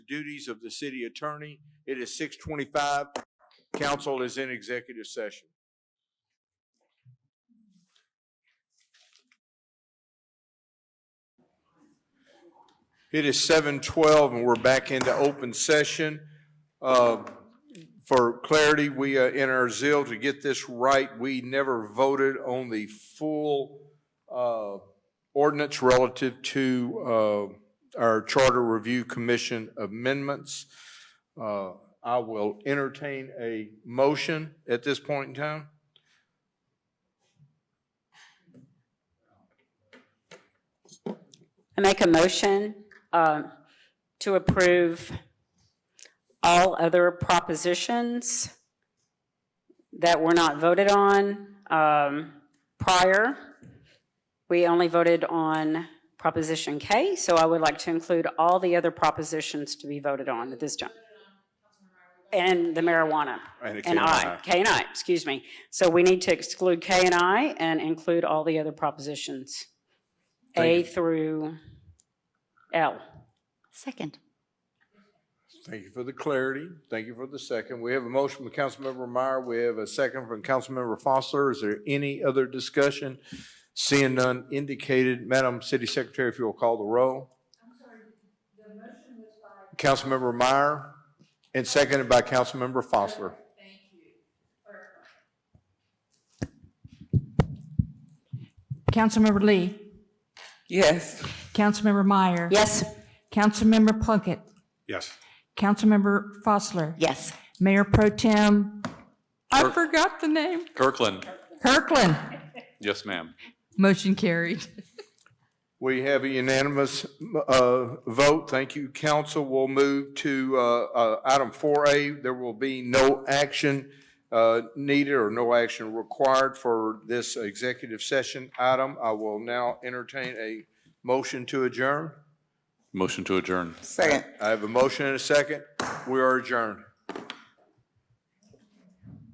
duties of the city attorney. It is six twenty-five. Council is in executive session. It is seven twelve and we're back into open session. Uh, For clarity, we, uh, in our zeal to get this right, we never voted on the full uh, ordinance relative to uh, our Charter Review Commission amendments. Uh, I will entertain a motion at this point in time. I make a motion um, to approve all other propositions that were not voted on um, prior. We only voted on Proposition K, so I would like to include all the other propositions to be voted on at this time. And the marijuana. And it And came I, out. K and I, excuse me. So we need to exclude K and I and include all the other propositions, A Thank through L. Second. Thank you for the clarity. Thank you for the second. We have a motion from Councilmember Meyer. We have a second from Councilmember Foster. Is there any other discussion? Seeing none indicated, Madam City Secretary, if you will call the roll. Councilmember Meyer and seconded by Councilmember Foster. Councilmember Lee. Yes. Councilmember Meyer. Yes. Councilmember Plunkett. Yes. Councilmember Fosler. Yes. Mayor Pro Tem I forgot the name. Kirkland. Kirkland. Yes, ma'am. Motion carried. We have a unanimous uh, vote. Thank you, council. We'll move to uh, uh, item 4A. There will be no action uh, needed or no action required for this executive session item. I will now entertain a motion to adjourn. Motion to adjourn. Second. I have a motion and a second. We are adjourned.